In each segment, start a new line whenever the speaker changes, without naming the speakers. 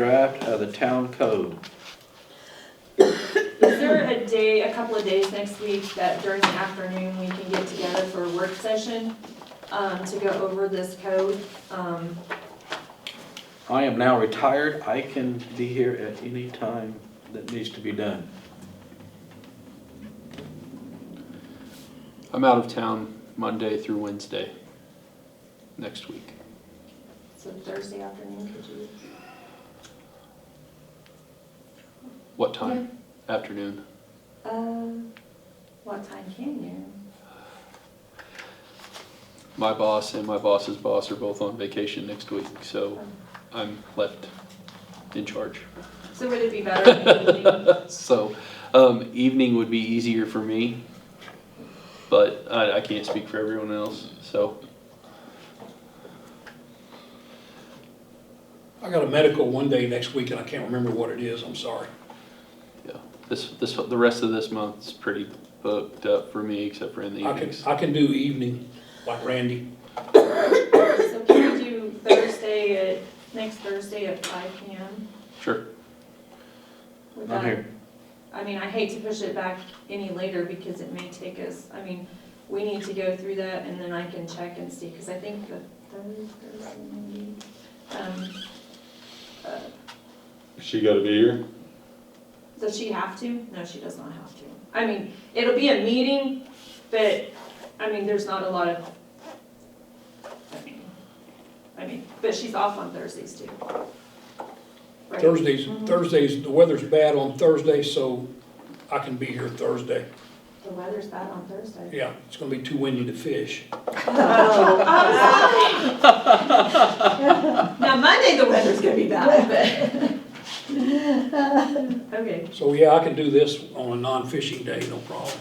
draft of the town code.
Is there a day, a couple of days next week that during the afternoon we can get together for a work session um, to go over this code? Um,
I am now retired, I can be here at any time that needs to be done.
I'm out of town Monday through Wednesday next week.
So Thursday afternoon, could you?
What time? Afternoon.
Uh, What time can you?
My boss and my boss's boss are both on vacation next week, so I'm left in charge.
So would it be better in the evening?
So um, evening would be easier for me, but I, I can't speak for everyone else. So
I got a medical one day next week and I can't remember what it is, I'm sorry.
yeah, this this the rest of this month's pretty booked up for me, except for in the
I can,
evenings.
I can do evening, like Randy.
So can we do Thursday at, next Thursday at five P M?
Sure.
Would
I'm
that-
here.
I mean, I hate to push it back any later because it may take us, I mean, we need to go through that and then I can check and see, because I think the third Thursday maybe. um, uh,
She got to be here.
Does she have to? No, she does not have to. I mean, it'll be a meeting, but, I mean, there's not a lot of, I mean, I mean, but she's off on Thursdays too. Right?
Thursdays,
Mhm.
Thursdays, the weather's bad on Thursday, so I can be here Thursday.
The weather's bad on Thursday.
Yeah, it's gonna be too windy to fish.
Now, Monday, the weather's gonna be bad, but. Okay,
So yeah, I can do this on a non-fishing day, no problem.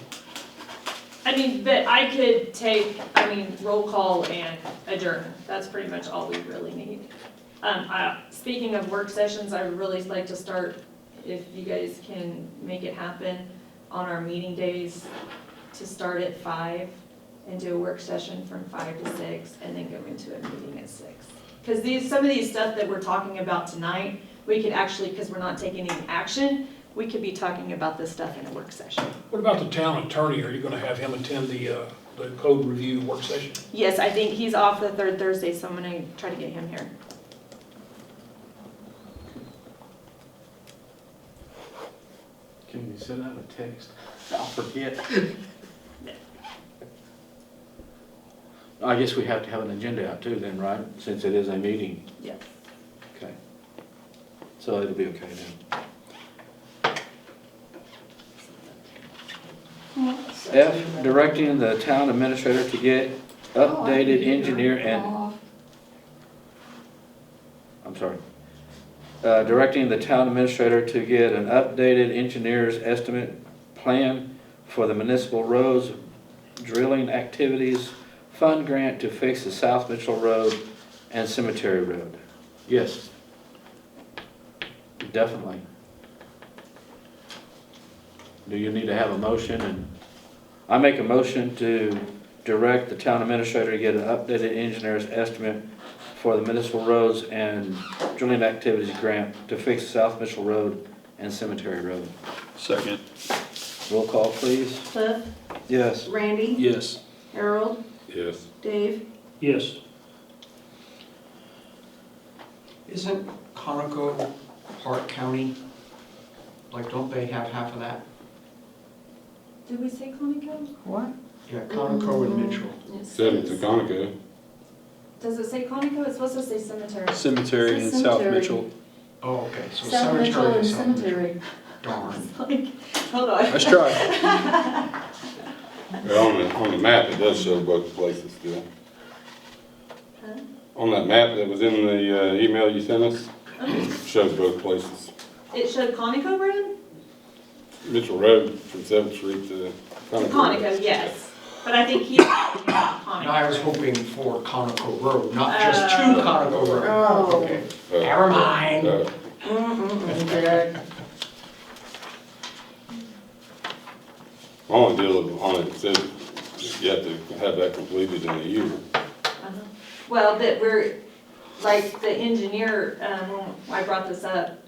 I mean, but I could take, I mean, roll call and adjourn, that's pretty much all we really need. Um, I, speaking of work sessions, I would really like to start, if you guys can make it happen, on our meeting days, to start at five and do a work session from five to six, and then go into a meeting at six. Because these, some of these stuff that we're talking about tonight, we could actually, because we're not taking any action, we could be talking about this stuff in a work session.
What about the town attorney? Are you gonna have him attend the, uh, the code review work session?
Yes, I think he's off the third Thursday, so I'm gonna try to get him here.
Can you send out a text? I'll forget. I guess we have to have an agenda out too then, right? Since it is a meeting,
Yeah.
okay. So it'll be okay then. F, directing the town administrator to get updated engineer and I'm sorry, Uh, directing the town administrator to get an updated engineer's estimate plan for the municipal roads drilling activities fund grant to fix the South Mitchell Road and Cemetery Road. Yes. Definitely. Do you need to have a motion and, I make a motion to direct the town administrator to get an updated engineer's estimate for the municipal roads and drilling activities grant to fix South Mitchell Road and Cemetery Road.
Second.
Roll call, please.
Cliff,
Yes.
Randy,
Yes.
Harold,
Yes.
Dave.
Yes.
Isn't Conoco Park County, like, don't they have half of that?
Did we say Conoco?
What? Yeah, Conoco and
Mm-hmm.
Mitchell.
Seven to Conoco.
Does it say Conoco? It's supposed to say cemetery.
Cemetery in South
Cemetery.
Mitchell.
Oh, okay, so
South Mitchell and
cemetery is South Mitchell.
Cemetery.
Darn.
Hold on.
Nice try.
Well, on the, on the map, it does show both places still.
Huh?
On that map that was in the uh, email you sent us,
Uh-huh.
shows both places.
It showed Conoco, Brad?
Mitchell Road from Seventh Street to Conoco.
Conoco, yes. But I think he's talking about
And I was
Conoco.
hoping for Conoco Road, not just to
Oh.
Conoco Road.
Oh.
Okay,
Uh,
never mind.
uh,
Mm-mm, Jack.
Only deal on it, it says you have to have that completed in a year.
Uh-huh. Well, but we're, like the engineer, um, when I brought this up,